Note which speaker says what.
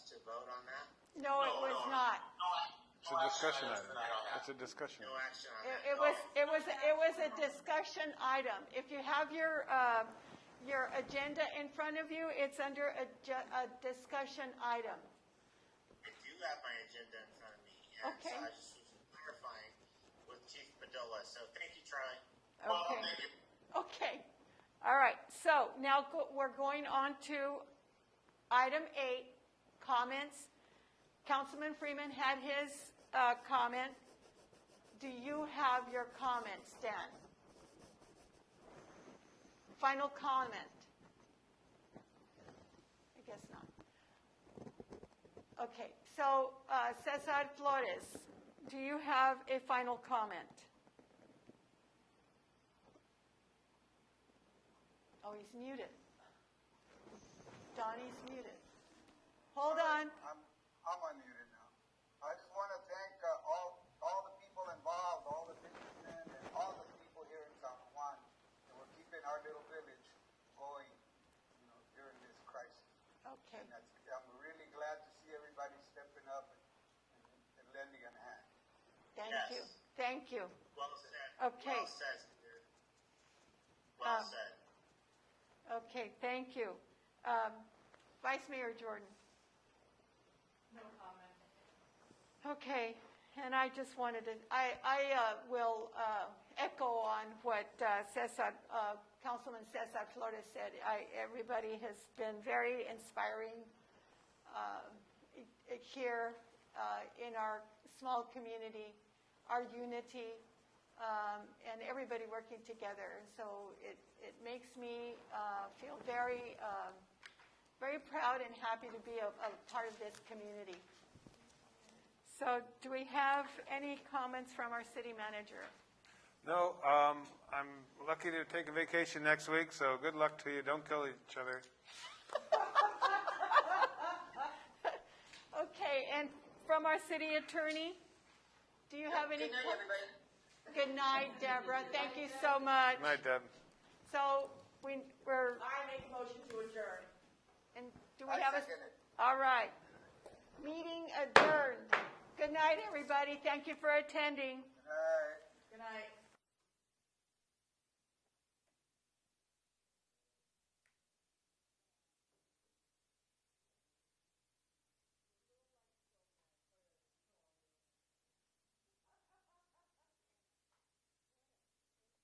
Speaker 1: vote on that?
Speaker 2: No, it
Speaker 1: No,
Speaker 2: was
Speaker 1: no,
Speaker 2: not.
Speaker 1: No, I-
Speaker 3: It's
Speaker 1: no
Speaker 3: a
Speaker 1: action
Speaker 3: discussion
Speaker 1: on
Speaker 3: item.
Speaker 1: tonight on that.
Speaker 3: It's a discussion.
Speaker 1: No action on that.
Speaker 2: It it was,
Speaker 1: Okay.
Speaker 2: it was, it was a discussion item. If you have your, uh, your agenda in front of you, it's under a, ju- a discussion item.
Speaker 1: I do have my agenda in front of me, and so
Speaker 2: Okay.
Speaker 1: I just was clarifying with Chief Padola, so thank you, Charlie. Well,
Speaker 2: Okay.
Speaker 1: thank you.
Speaker 2: Okay, all right, so now go- we're going on to item eight, comments. Councilman Freeman had his uh, comment. Do you have your comments, Dan? Final comment? I guess not. Okay, so uh, Cesar Flores, do you have a final comment? Oh, he's muted. Donnie's muted. Hold on.
Speaker 4: I'm, I'm unmuted now. I just want to thank uh, all, all the people involved, all the businessmen, and all the people here in San Juan that were keeping our little village going, you know, during this crisis.
Speaker 2: Okay,
Speaker 4: And that's, I'm really glad to see everybody stepping up and, and, and lending a hand.
Speaker 2: thank
Speaker 1: Yes.
Speaker 2: you, thank you.
Speaker 1: Well said.
Speaker 2: Okay.
Speaker 1: Well said, Peter. Well
Speaker 2: Um,
Speaker 1: said.
Speaker 2: Okay, thank you. Um, Vice Mayor Jordan? No comment. Okay, and I just wanted to, I, I uh, will uh, echo on what uh, Cesar, uh, Councilman Cesar Flores said. I, everybody has been very inspiring uh, it- it here uh, in our small community, our unity, um, and everybody working together. And So it, it makes me uh, feel very, um, very proud and happy to be a, a part of this community. So do we have any comments from our city manager?
Speaker 3: No, um, I'm lucky to take a vacation next week, so good luck to you. Don't kill each other.
Speaker 2: Okay, and from our city attorney, do you have any? Good night, Deborah. Thank you so much.
Speaker 3: Good night, Deb.
Speaker 2: So we, we're,
Speaker 5: I make a motion to adjourn.
Speaker 2: and do we
Speaker 4: I
Speaker 2: have a?
Speaker 4: second it.
Speaker 2: All right. Meeting adjourned. Good night, everybody. Thank you for attending.
Speaker 5: Good
Speaker 4: Good night.
Speaker 5: night.